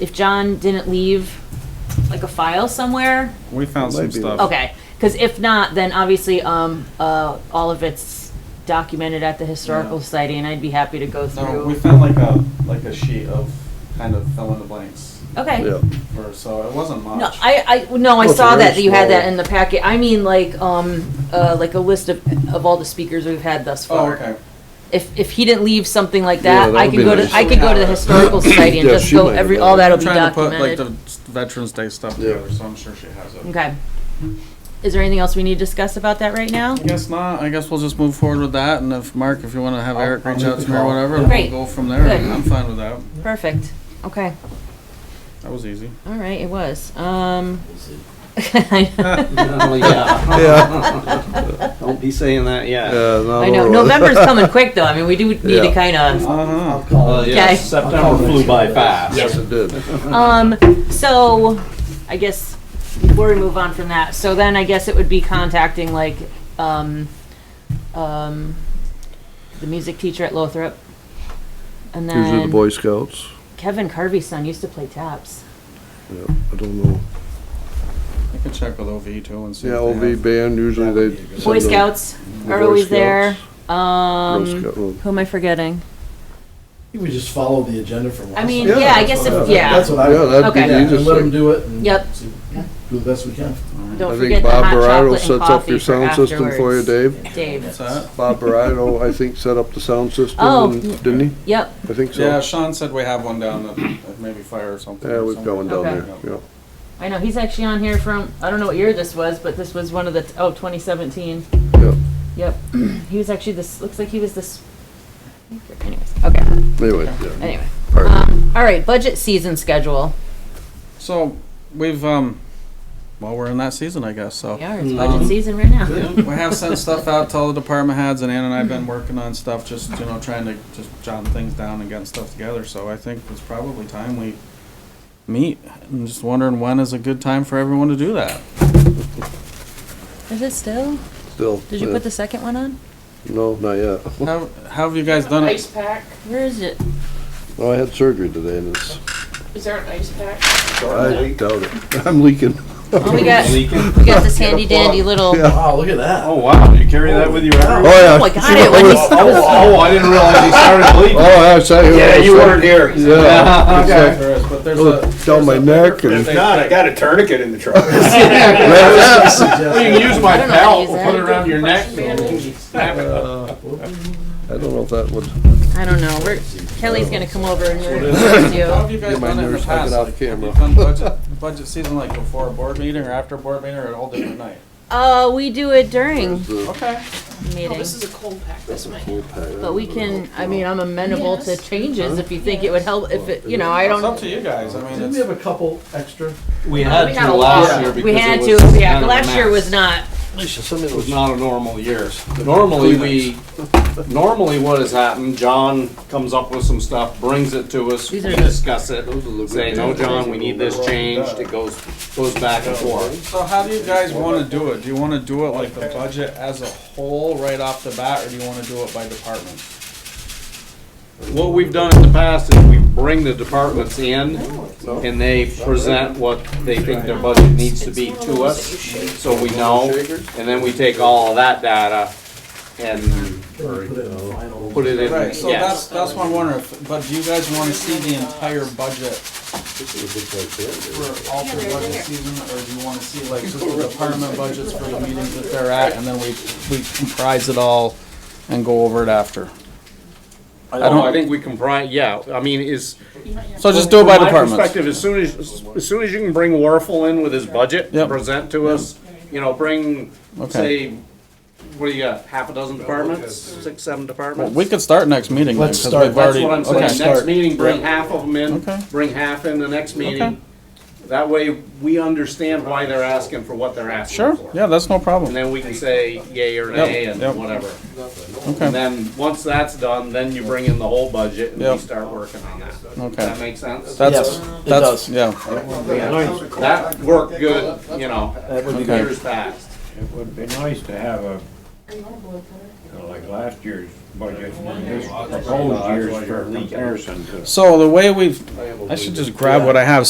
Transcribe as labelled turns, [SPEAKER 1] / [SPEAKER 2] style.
[SPEAKER 1] if John didn't leave like a file somewhere,
[SPEAKER 2] We found some
[SPEAKER 3] Maybe.
[SPEAKER 2] stuff.
[SPEAKER 1] okay. Because if not, then obviously, um, uh, all of it's documented at the historical
[SPEAKER 4] Yeah.
[SPEAKER 1] society, and I'd be happy to go
[SPEAKER 4] No, we
[SPEAKER 1] through.
[SPEAKER 4] found like a, like a sheet of kind of fill in the blanks
[SPEAKER 1] Okay.
[SPEAKER 3] Yeah.
[SPEAKER 4] for, so it wasn't much.
[SPEAKER 1] No, I, I, no, I
[SPEAKER 3] Well, it's
[SPEAKER 1] saw
[SPEAKER 3] very
[SPEAKER 1] that, that you had that
[SPEAKER 3] small.
[SPEAKER 1] in the packet. I mean, like, um, uh, like a list of, of all the speakers we've had thus
[SPEAKER 4] Oh,
[SPEAKER 1] far.
[SPEAKER 4] okay.
[SPEAKER 1] If, if he didn't leave something like
[SPEAKER 3] Yeah,
[SPEAKER 1] that,
[SPEAKER 3] that
[SPEAKER 1] I
[SPEAKER 3] would
[SPEAKER 1] could
[SPEAKER 3] be
[SPEAKER 1] go to,
[SPEAKER 3] nice.
[SPEAKER 1] I could go to the historical society and
[SPEAKER 3] Yeah,
[SPEAKER 1] just
[SPEAKER 3] she
[SPEAKER 1] go
[SPEAKER 3] might have
[SPEAKER 1] every,
[SPEAKER 3] done
[SPEAKER 1] all
[SPEAKER 3] it.
[SPEAKER 1] that'll
[SPEAKER 2] I'm
[SPEAKER 1] be
[SPEAKER 2] trying to put like the
[SPEAKER 1] documented.
[SPEAKER 2] Veterans Day stuff
[SPEAKER 3] Yeah.
[SPEAKER 2] together, so I'm sure she has it.
[SPEAKER 1] Okay. Is there anything else we need to discuss about that right now?
[SPEAKER 2] I guess not. I guess we'll just move forward with that. And if Mark, if you want to have
[SPEAKER 4] I'll-
[SPEAKER 2] Eric
[SPEAKER 4] I'll
[SPEAKER 2] reach
[SPEAKER 4] make
[SPEAKER 2] out
[SPEAKER 4] the
[SPEAKER 2] to me or
[SPEAKER 4] call.
[SPEAKER 2] whatever,
[SPEAKER 1] Great.
[SPEAKER 2] we'll go from there.
[SPEAKER 1] Good.
[SPEAKER 2] I'm fine with that.
[SPEAKER 1] Perfect. Okay.
[SPEAKER 2] That was easy.
[SPEAKER 1] All right, it was. Um. I
[SPEAKER 5] Oh, yeah. Don't be saying that yet.
[SPEAKER 1] know, November's coming quick though. I mean, we do need to
[SPEAKER 3] Yeah.
[SPEAKER 1] kind of,
[SPEAKER 2] Uh-huh.
[SPEAKER 5] Uh, yeah,
[SPEAKER 1] Okay.
[SPEAKER 5] September flew by fast.
[SPEAKER 3] Yes, it did.
[SPEAKER 1] um, so I guess before we move on from that, so then I guess it would be contacting like, um, um, the music teacher at Lothrop. And
[SPEAKER 3] Usually the
[SPEAKER 1] then
[SPEAKER 3] Boy Scouts.
[SPEAKER 1] Kevin Carvey's son used to play taps.
[SPEAKER 3] Yeah, I don't know.
[SPEAKER 2] I can check with OV too and see.
[SPEAKER 3] Yeah,
[SPEAKER 2] if they
[SPEAKER 3] OV
[SPEAKER 2] have-
[SPEAKER 3] band, usually they. send
[SPEAKER 1] Boy
[SPEAKER 3] the-
[SPEAKER 1] Scouts
[SPEAKER 3] the
[SPEAKER 1] are
[SPEAKER 3] Boy
[SPEAKER 1] always there.
[SPEAKER 3] Scouts,
[SPEAKER 1] Um,
[SPEAKER 3] Girl Scout- oh. well,
[SPEAKER 1] who am I forgetting?
[SPEAKER 6] You would just follow the agenda from last
[SPEAKER 1] I mean,
[SPEAKER 6] time.
[SPEAKER 1] yeah, I guess if, yeah,
[SPEAKER 6] That's what I
[SPEAKER 3] Yeah,
[SPEAKER 6] would,
[SPEAKER 3] that'd be
[SPEAKER 1] Okay.
[SPEAKER 3] the
[SPEAKER 6] yeah, and
[SPEAKER 3] easiest
[SPEAKER 6] let them
[SPEAKER 3] thing.
[SPEAKER 6] do it and
[SPEAKER 1] Yep.
[SPEAKER 6] see- do the best we can.
[SPEAKER 1] don't
[SPEAKER 3] I think
[SPEAKER 1] forget the hot
[SPEAKER 3] Bob Barado
[SPEAKER 1] chocolate and
[SPEAKER 3] sets up
[SPEAKER 1] coffee
[SPEAKER 3] your
[SPEAKER 1] for
[SPEAKER 3] sound system for you,
[SPEAKER 1] afterwards.
[SPEAKER 3] Dave.
[SPEAKER 1] Dave,
[SPEAKER 2] What's that?
[SPEAKER 3] Bob Barado, I think, set up the sound system,
[SPEAKER 1] Oh.
[SPEAKER 3] and- didn't he?
[SPEAKER 1] yep,
[SPEAKER 3] I think
[SPEAKER 2] Yeah,
[SPEAKER 3] so.
[SPEAKER 2] Sean said we have one down at at maybe fire or something.
[SPEAKER 3] Yeah,
[SPEAKER 2] or
[SPEAKER 3] we're
[SPEAKER 2] somewhere.
[SPEAKER 3] going down
[SPEAKER 1] Okay.
[SPEAKER 3] there, yeah.
[SPEAKER 1] I know, he's actually on here from, I don't know what year this was, but this was one of the, oh, 2017.
[SPEAKER 3] Yep.
[SPEAKER 1] Yep, he was actually this, looks like he was this, anyways, okay,
[SPEAKER 3] Anyway, yeah.
[SPEAKER 1] anyway.
[SPEAKER 3] All right.
[SPEAKER 1] Um, all right, budget season schedule.
[SPEAKER 2] So we've, um, well, we're in that season, I guess, so.
[SPEAKER 1] We are, it's
[SPEAKER 5] Um,
[SPEAKER 1] budget season right now.
[SPEAKER 2] We have sent stuff out to all the department heads, and Ann and I have been working on stuff, just, you know, trying to just jot things down and getting stuff together, so I think it's probably time we meet. I'm just wondering when is a good time for everyone to do that?
[SPEAKER 1] Is it still?
[SPEAKER 3] Still.
[SPEAKER 1] Did you
[SPEAKER 3] yeah.
[SPEAKER 1] put the second one on?
[SPEAKER 3] No, not yet.
[SPEAKER 2] How, how have you guys done it?
[SPEAKER 7] pack?
[SPEAKER 1] Where is it?
[SPEAKER 3] No, I had surgery today, and it's,
[SPEAKER 7] Is there an ice pack?
[SPEAKER 3] I doubt it. I'm leaking.
[SPEAKER 1] Oh, we got, we
[SPEAKER 5] Leaking?
[SPEAKER 1] got this handy dandy little,
[SPEAKER 3] Yeah.
[SPEAKER 6] Wow, look at that.
[SPEAKER 5] Oh, wow, you carry that with you everywhere?
[SPEAKER 3] yeah.
[SPEAKER 1] oh, I got it when
[SPEAKER 5] Oh, oh, I didn't realize you started bleeding.
[SPEAKER 3] Oh, I was out here.
[SPEAKER 5] Yeah, you weren't here.
[SPEAKER 3] Yeah.
[SPEAKER 5] Okay.
[SPEAKER 3] It's
[SPEAKER 2] There is, but there's
[SPEAKER 3] like,
[SPEAKER 2] a,
[SPEAKER 3] look down my neck and.
[SPEAKER 5] If not, I got a tourniquet in the truck.
[SPEAKER 3] Yes.
[SPEAKER 5] You can use
[SPEAKER 1] I
[SPEAKER 5] my
[SPEAKER 1] don't know how to
[SPEAKER 5] belt,
[SPEAKER 1] use
[SPEAKER 5] we'll
[SPEAKER 1] that.
[SPEAKER 5] put it around your neck.
[SPEAKER 3] I don't know if that would.
[SPEAKER 1] I don't know, we're, Kelly's gonna come over and we're gonna talk to you.
[SPEAKER 2] how have you guys
[SPEAKER 3] Get my
[SPEAKER 2] done it in the
[SPEAKER 3] nerves taken
[SPEAKER 2] past?
[SPEAKER 3] off
[SPEAKER 2] Like, have you
[SPEAKER 3] camera.
[SPEAKER 2] done budget, budget season like before a board meeting or after a board meeting or a whole different night?
[SPEAKER 1] Uh, we do it during
[SPEAKER 2] Okay.
[SPEAKER 7] Oh,
[SPEAKER 1] meetings,
[SPEAKER 7] this is a cold pack, this might.
[SPEAKER 1] but we can, I mean, I'm amenable to changes if you think it would help, if it, you know, I
[SPEAKER 2] It's up
[SPEAKER 1] don't.
[SPEAKER 2] to you guys, I mean,
[SPEAKER 6] Didn't we
[SPEAKER 2] it's,
[SPEAKER 6] have a couple extra?
[SPEAKER 5] We
[SPEAKER 1] We had a lot. We had to, yeah, last year was not,
[SPEAKER 5] It was not a normal year. Normally, we, normally what has happened, John comes up with some stuff, brings it to us, we
[SPEAKER 1] These are-
[SPEAKER 5] discuss it, say, no, John, we need this changed, it goes, goes back and forth.
[SPEAKER 2] so how do you guys wanna do it? Do you wanna do it like the budget as a whole right off the bat, or do you wanna do it by department?
[SPEAKER 5] What we've done in the past is we bring the departments in and they present what they think their budget needs to be to us, so we know. And then we take all of that data and
[SPEAKER 6] Put it in the final.
[SPEAKER 5] put it in,
[SPEAKER 2] Right, so that's,
[SPEAKER 5] yes.
[SPEAKER 2] that's what I'm wondering, if- but do you guys wanna see the entire budget for all three budget season, or do you wanna see like just the department budgets for the meetings that they're at, and then we, we comprise it all and go over it after?
[SPEAKER 5] I don't, Oh, I think we comprise, yeah, I mean, is.
[SPEAKER 2] So just do it by
[SPEAKER 5] From my
[SPEAKER 2] departments.
[SPEAKER 5] Perspective, as soon as, as soon as you can bring Warfel in with his budget,
[SPEAKER 2] Yep.
[SPEAKER 5] present to us, you know, bring, say,
[SPEAKER 2] Okay.
[SPEAKER 5] what do you got, half a dozen departments, six, seven departments?
[SPEAKER 2] We could start next meeting. then,
[SPEAKER 6] Let's
[SPEAKER 2] 'cause
[SPEAKER 6] start.
[SPEAKER 2] we've
[SPEAKER 5] That's
[SPEAKER 2] already-
[SPEAKER 5] what I'm
[SPEAKER 2] okay.
[SPEAKER 5] saying, next meeting, bring half of them
[SPEAKER 2] Okay.
[SPEAKER 5] in, bring half in the next
[SPEAKER 2] Okay.
[SPEAKER 5] meeting. That way, we understand why they're asking for what they're asking
[SPEAKER 2] Sure,
[SPEAKER 5] for.
[SPEAKER 2] yeah, that's no
[SPEAKER 5] And
[SPEAKER 2] problem.
[SPEAKER 5] then we can say yay or
[SPEAKER 2] Yep,
[SPEAKER 5] nay and
[SPEAKER 2] yep.
[SPEAKER 5] whatever. And
[SPEAKER 2] Okay,
[SPEAKER 5] then, once that's done, then you bring in the whole budget and we
[SPEAKER 2] Yep.
[SPEAKER 5] start working on that. Does
[SPEAKER 2] okay.
[SPEAKER 5] that make sense?
[SPEAKER 2] That's,
[SPEAKER 6] Yes, it
[SPEAKER 2] that's,
[SPEAKER 6] does.
[SPEAKER 2] yeah.
[SPEAKER 5] That worked good, you know,
[SPEAKER 6] That would be
[SPEAKER 2] Okay.
[SPEAKER 6] good.
[SPEAKER 5] years past.
[SPEAKER 8] It would be nice to have a, you know, like last year's budget, the whole year's for comparison to.
[SPEAKER 2] So the way we've, I should just grab what I have.